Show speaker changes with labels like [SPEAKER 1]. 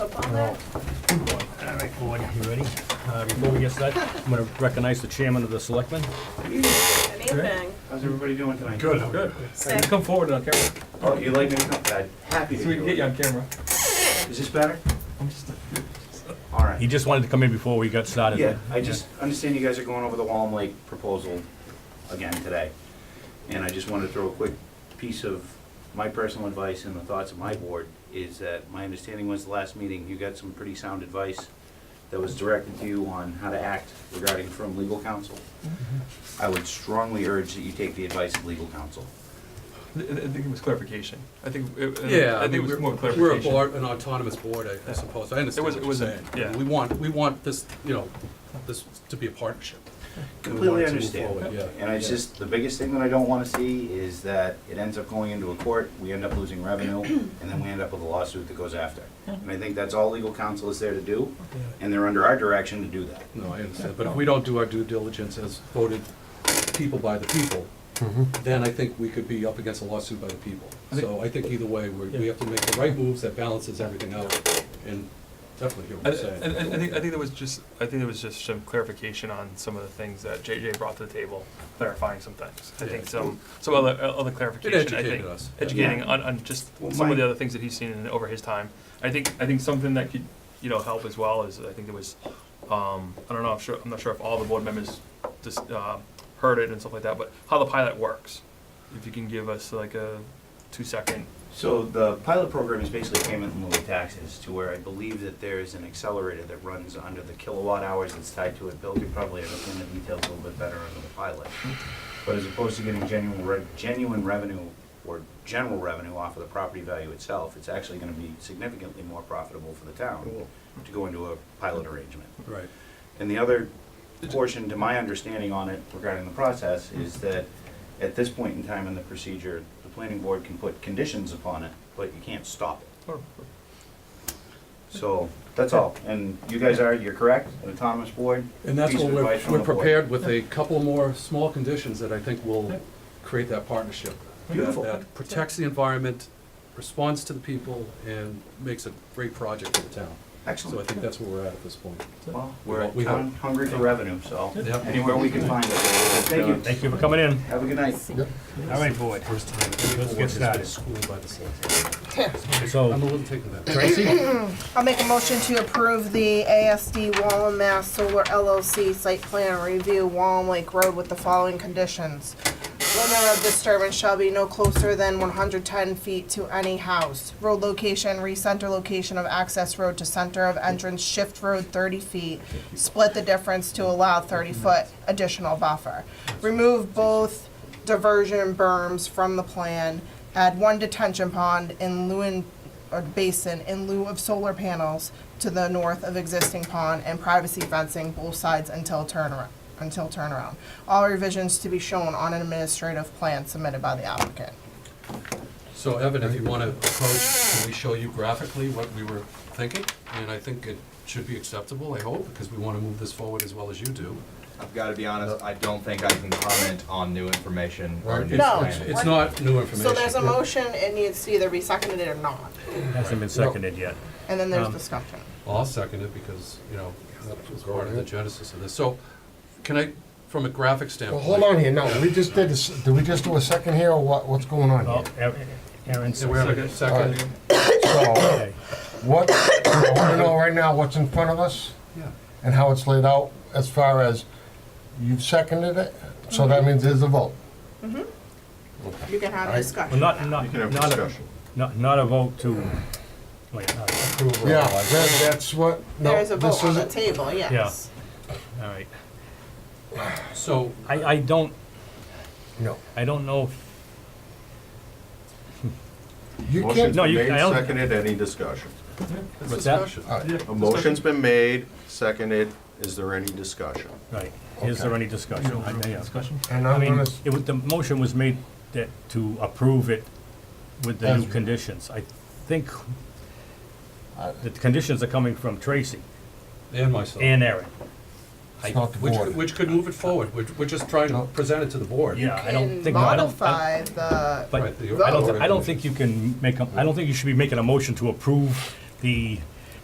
[SPEAKER 1] up on that?
[SPEAKER 2] All right, board, you ready? Uh, Before we get started, I'm going to recognize the chairman of the selectmen.
[SPEAKER 1] Amazing.
[SPEAKER 3] How's everybody doing tonight?
[SPEAKER 2] Good.
[SPEAKER 1] Sick.
[SPEAKER 2] Come forward on camera,
[SPEAKER 3] Oh, you like me to come? I'm Happy to
[SPEAKER 2] so we can get
[SPEAKER 3] do
[SPEAKER 2] you
[SPEAKER 3] it.
[SPEAKER 2] on camera.
[SPEAKER 3] Is this better? All
[SPEAKER 2] He
[SPEAKER 3] right.
[SPEAKER 2] just wanted to come in before we got started.
[SPEAKER 3] Yeah, I just understand you guys are going over the Wallam Lake proposal again today. And I just wanted to throw a quick piece of my personal advice and the thoughts of my board is that my understanding was the last meeting, you got some pretty sound advice that was directed to you on how to act regarding from legal counsel.
[SPEAKER 2] Mm-hmm.
[SPEAKER 3] I would strongly urge that you take the advice of legal counsel.
[SPEAKER 4] I I think it was clarification. I think, it-
[SPEAKER 5] Yeah,
[SPEAKER 4] I
[SPEAKER 5] I
[SPEAKER 4] think it
[SPEAKER 5] mean,
[SPEAKER 4] was more
[SPEAKER 5] we're,
[SPEAKER 4] clarification.
[SPEAKER 5] we're a board, an autonomous board, I- I suppose, I
[SPEAKER 4] It
[SPEAKER 5] understand
[SPEAKER 4] was-
[SPEAKER 5] what
[SPEAKER 4] it
[SPEAKER 5] you're
[SPEAKER 4] was a-
[SPEAKER 5] saying.
[SPEAKER 4] yeah.
[SPEAKER 5] We want, we want this, you know, this to be a partnership. We want
[SPEAKER 3] Completely
[SPEAKER 5] it to move
[SPEAKER 3] understand.
[SPEAKER 5] forward, Yeah.
[SPEAKER 3] And it's
[SPEAKER 5] Yeah.
[SPEAKER 3] just, the biggest thing that I don't wanna see is that it ends up going into a court, we end up losing revenue, and then we end up with a lawsuit that goes after. And I think that's all legal counsel is there to do, and they're under our direction to do that.
[SPEAKER 5] No, I understand, but if we don't do our due diligence as voted people by the people, then I think we could be up against a lawsuit by the people.
[SPEAKER 4] I think-
[SPEAKER 5] So Mm-hmm. I think either way, we, we
[SPEAKER 4] Yeah.
[SPEAKER 5] have to make the right moves that balances everything out, and definitely hear
[SPEAKER 4] I,
[SPEAKER 5] what
[SPEAKER 4] I,
[SPEAKER 5] you're saying.
[SPEAKER 4] I I think, I think there was just, I think there was just some clarification on some of the things that JJ brought to the table, clarifying some things. I think
[SPEAKER 5] Yeah.
[SPEAKER 4] some, some other, other clarification, I think.
[SPEAKER 5] educated us.
[SPEAKER 4] Educating
[SPEAKER 3] Yeah.
[SPEAKER 4] on, on just
[SPEAKER 3] Well,
[SPEAKER 4] some
[SPEAKER 3] my-
[SPEAKER 4] of the other things that he's seen in, over his time. I think, I think something that could, you know, help as well is, I think there was, um, I don't know, I'm sure, I'm not sure if all the board members just, uh, heard it and stuff like that, but how the pilot works. If you can give us like a two-second
[SPEAKER 3] So the pilot program is basically payment in lieu of taxes, to where I believe that there is an accelerator that runs under the kilowatt hours that's tied to it. Bill could probably understand the details a little bit better under the pilot. But as opposed to getting genuine, re- genuine revenue or general revenue off of the property value itself, it's actually gonna be significantly more profitable for the town to go into a pilot arrangement.
[SPEAKER 5] Right.
[SPEAKER 3] And the other portion, to my understanding on it regarding the process, is
[SPEAKER 5] Hmm.
[SPEAKER 3] that at this point in time in the procedure, the planning board can put conditions upon it, but you can't stop it.
[SPEAKER 5] Oh,
[SPEAKER 3] So, that's all. And you guys are, you're correct, an autonomous board.
[SPEAKER 5] And that's
[SPEAKER 3] Piece
[SPEAKER 5] what
[SPEAKER 3] of
[SPEAKER 5] we're,
[SPEAKER 3] advice from
[SPEAKER 5] we're
[SPEAKER 3] the board.
[SPEAKER 5] prepared with a couple more small conditions that I think will create that partnership. that-
[SPEAKER 3] Beautiful.
[SPEAKER 5] That protects the environment, responds to the people, and makes a great project for the town. So I
[SPEAKER 3] Excellent.
[SPEAKER 5] think that's where we're at at this point.
[SPEAKER 3] Well, we're
[SPEAKER 5] We hope.
[SPEAKER 3] town hungry for revenue, so
[SPEAKER 5] Yep.
[SPEAKER 3] anywhere we can find it. Thank you.
[SPEAKER 2] Thank you for coming in.
[SPEAKER 3] Have a good night.
[SPEAKER 2] All right, board.
[SPEAKER 5] First time.
[SPEAKER 2] Let's get started.
[SPEAKER 5] School by the select. I'm
[SPEAKER 2] So,
[SPEAKER 5] a little taken back.
[SPEAKER 2] Tracy,
[SPEAKER 1] I'll make a motion to approve the ASD Wallam Mass Solar LLC site plan review Wallam Lake Road with the following conditions. Limit of disturbance shall be no closer than one hundred ten feet to any house. Road location, recenter location of access road to center of entrance, shift road thirty feet. Split the difference to allow thirty foot additional buffer. Remove both diversion berms from the plan. Add one detention pond in Lewin or basin in lieu of solar panels to the north of existing pond and privacy fencing both sides until turnaround, until turnaround. All revisions to be shown on an administrative plan submitted by the applicant.
[SPEAKER 5] So Evan, if you want to approach, can we show you graphically what we were thinking? And I think it should be acceptable, I hope, because we want to move this forward as well as you do.
[SPEAKER 6] I've got to be honest, I don't think I can comment on new information or
[SPEAKER 5] It's-
[SPEAKER 6] new
[SPEAKER 1] No.
[SPEAKER 5] it's-
[SPEAKER 6] plan.
[SPEAKER 5] It's not new information.
[SPEAKER 1] So there's a motion, it needs to either be seconded or not,
[SPEAKER 2] hasn't been seconded yet.
[SPEAKER 1] and then there's
[SPEAKER 5] Um,
[SPEAKER 1] discussion.
[SPEAKER 5] Well, I'll second it because, you know, that was part of the genesis of this. So can I, from a graphic
[SPEAKER 7] Well,
[SPEAKER 5] standpoint?
[SPEAKER 7] hold on here, no, we just did this, did we just do a second here, or what, what's going on
[SPEAKER 2] Oh,
[SPEAKER 7] here?
[SPEAKER 2] Aaron,
[SPEAKER 5] Yeah, we have a second.
[SPEAKER 7] So,
[SPEAKER 2] okay.
[SPEAKER 7] what, I wanna know right now what's in front of us,
[SPEAKER 5] Yeah.
[SPEAKER 7] and how it's laid out, as far as, you've seconded it, so that means there's a vote.
[SPEAKER 1] You can have
[SPEAKER 2] Well,
[SPEAKER 1] discussion.
[SPEAKER 2] not, not, not a, not- not a vote to, wait, all right.
[SPEAKER 5] Approve or
[SPEAKER 7] Yeah,
[SPEAKER 5] otherwise.
[SPEAKER 7] that, that's what, no,
[SPEAKER 1] There is a
[SPEAKER 7] this
[SPEAKER 1] vote on the
[SPEAKER 7] is,
[SPEAKER 1] table, yes.
[SPEAKER 2] all right.
[SPEAKER 5] So,
[SPEAKER 2] I, I don't,
[SPEAKER 7] no.
[SPEAKER 2] I don't know if
[SPEAKER 7] You
[SPEAKER 8] Motion's
[SPEAKER 7] can't,
[SPEAKER 2] No,
[SPEAKER 8] been
[SPEAKER 2] you- I
[SPEAKER 8] made,
[SPEAKER 2] don't-
[SPEAKER 8] seconded, any discussion?
[SPEAKER 5] it's
[SPEAKER 2] What's that?
[SPEAKER 5] discussion.
[SPEAKER 7] all right,
[SPEAKER 8] A motion's been made, seconded, is there any discussion?
[SPEAKER 2] Right, is there any discussion? I- yeah.
[SPEAKER 7] and
[SPEAKER 2] I
[SPEAKER 7] I'm
[SPEAKER 2] mean,
[SPEAKER 7] gonna, s-
[SPEAKER 2] it was, the motion was made that, to approve it with the new
[SPEAKER 7] As-
[SPEAKER 2] conditions. I think that the conditions are coming from Tracy
[SPEAKER 5] And myself.
[SPEAKER 2] and Aaron.
[SPEAKER 7] it's not the
[SPEAKER 5] Which,
[SPEAKER 7] board.
[SPEAKER 5] which could move it forward. We're, we're just trying to present it to the board.
[SPEAKER 2] Yeah, I don't
[SPEAKER 1] And
[SPEAKER 2] think, no, I don't, I-
[SPEAKER 1] modify the,
[SPEAKER 2] but
[SPEAKER 5] Right, the
[SPEAKER 2] I don't,
[SPEAKER 5] vote.
[SPEAKER 2] I don't think you can make, a- I don't think you should be making a motion to approve the